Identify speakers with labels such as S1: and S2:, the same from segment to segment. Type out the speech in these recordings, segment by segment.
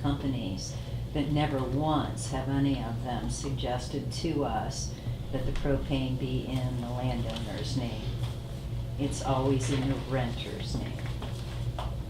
S1: companies, but never once have any of them suggested to us that the propane be in the landowner's name. It's always in the renter's name.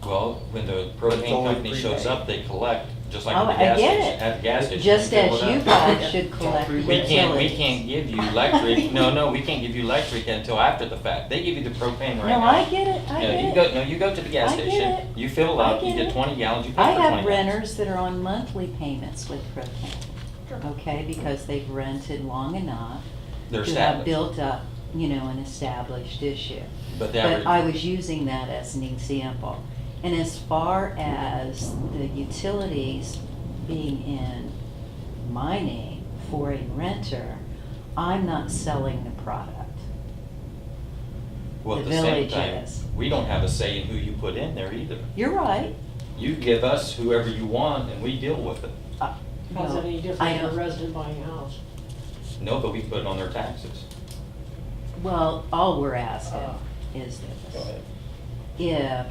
S2: Well, when the
S3: But it's
S2: propane
S3: only
S2: company shows
S3: prepaid.
S2: up, they collect, just like
S1: Oh,
S2: at the
S1: I get
S2: gas station,
S1: it.
S2: at the gas station.
S1: Just
S2: they
S1: as
S2: fill it
S1: you
S2: up.
S1: guys should collect
S3: We
S2: We can't, we
S1: utilities.
S2: can't give you electric, no, no, we can't give you electric until after the fact. They give you the propane right
S1: No,
S2: now.
S1: I get it, I
S2: No, you
S1: get
S2: go,
S1: it.
S2: no, you go to the gas
S1: I get
S2: station,
S1: it.
S2: you fill
S1: I
S2: up, you
S1: get
S2: get
S1: it.
S2: twenty gallons, you pay
S1: I
S2: for twenty
S1: have
S2: gallons.
S1: renters that are on monthly payments with propane, okay, because they've rented long enough
S2: They're
S1: to have
S2: established,
S1: built up, you know, an established issue.
S2: but the
S1: But I
S2: average,
S1: was using that as an example. And as far as the utilities being in my name for a renter, I'm not selling the product.
S2: well, at
S1: the
S2: the same
S1: village
S2: time,
S1: is.
S2: we don't have a say in who you put in there either.
S1: You're right.
S2: You give us whoever you want and we deal with it.
S4: How's that any
S1: Well,
S4: different
S1: Uh, I
S4: than a
S1: don't-
S4: resident buying a house?
S2: No, but we put it on their taxes.
S1: Well, all we're
S4: Uh,
S1: asking is
S3: Uh-huh. Go
S1: this.
S3: ahead.
S1: If,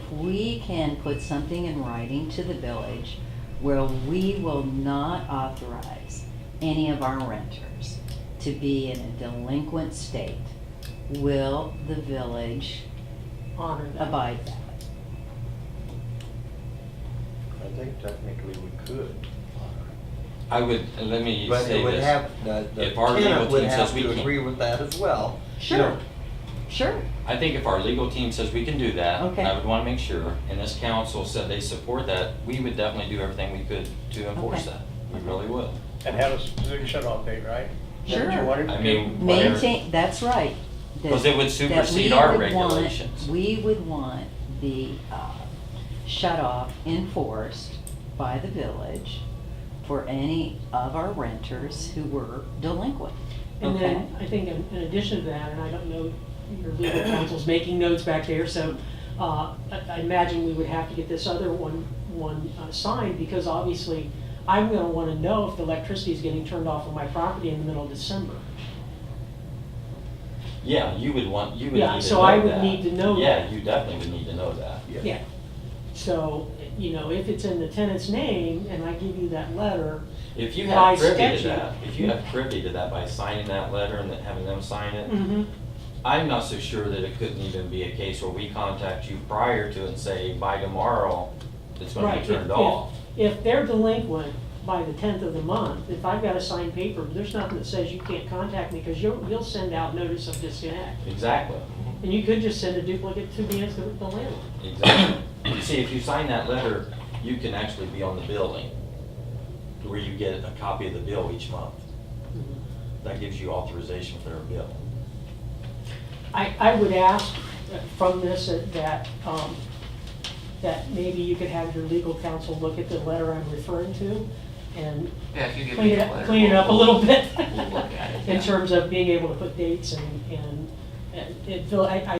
S1: if we can put something in writing to the village where we will not authorize any of our renters to be in a delinquent state, will the village
S4: Honor that.
S1: abide that?
S3: I think technically we could.
S2: I would, let me
S3: But
S2: say
S3: it would
S2: this.
S3: have, the, the
S2: If our legal
S3: tenant would
S2: team
S3: have
S2: says we
S3: to
S2: can't-
S3: agree with that as well. You
S1: Sure,
S3: know,
S1: sure.
S2: I think if our legal team says we can do that,
S1: Okay.
S2: I would want to make sure, and this council said they support that, we would definitely do everything we could to enforce
S1: Okay.
S2: that. We really would.
S5: And have a specific shut-off date, right? Is that what you
S1: Sure.
S5: wanted?
S2: I mean, whatever-
S1: Maintain, that's right. that-
S2: 'Cause it would
S1: that
S2: supersede
S1: we
S2: our
S1: would want-
S2: regulations.
S1: We would want the uh, shut-off enforced by the village for any of our renters who were delinquent.
S4: And
S1: Okay.
S4: then, I think in in addition to that, and I don't know, your legal counsel's making notes back there, so uh, I I imagine we would have to get this other one, one uh, signed, because obviously, I'm gonna wanna know if the electricity is getting turned off on my property in the middle of December.
S2: Yeah, you would want, you would need to know
S4: Yeah,
S2: that.
S4: so I would need to know
S2: Yeah,
S4: that.
S2: you definitely would need to know that.
S4: Yeah. So, you know, if it's in the tenant's name, and I give you that letter,
S2: If you
S4: By
S2: have privy to
S4: statute.
S2: that, if you have privy to that by signing that letter and then having them sign it,
S1: Mm-hmm.
S4: mhm,
S2: I'm not so sure that it couldn't even be a case where we contact you prior to it and say, by tomorrow, it's gonna
S4: Right,
S2: be
S4: if-
S2: turned
S4: if-
S2: off.
S4: if they're delinquent by the tenth of the month, if I've got a signed paper, there's nothing that says you can't contact me, because you'll, you'll send out notice of disconnect.
S2: Exactly.
S4: And you could just send a duplicate to the, the landlord.
S2: Exactly. You See, if you sign that letter, you can actually be on the billing, where you get a copy of the bill each month. That gives you authorization for their bill.
S4: I, I would ask uh, from this that, um, that maybe you could have your legal counsel look at the letter I'm referring to and
S6: Yeah, if you give me
S4: clean
S6: the
S4: it,
S6: letter.
S4: clean it up a
S6: we'll-
S4: little bit.
S6: We'll look at it.
S4: In
S6: yeah.
S4: terms of being able to put dates and, and, and fill- I, I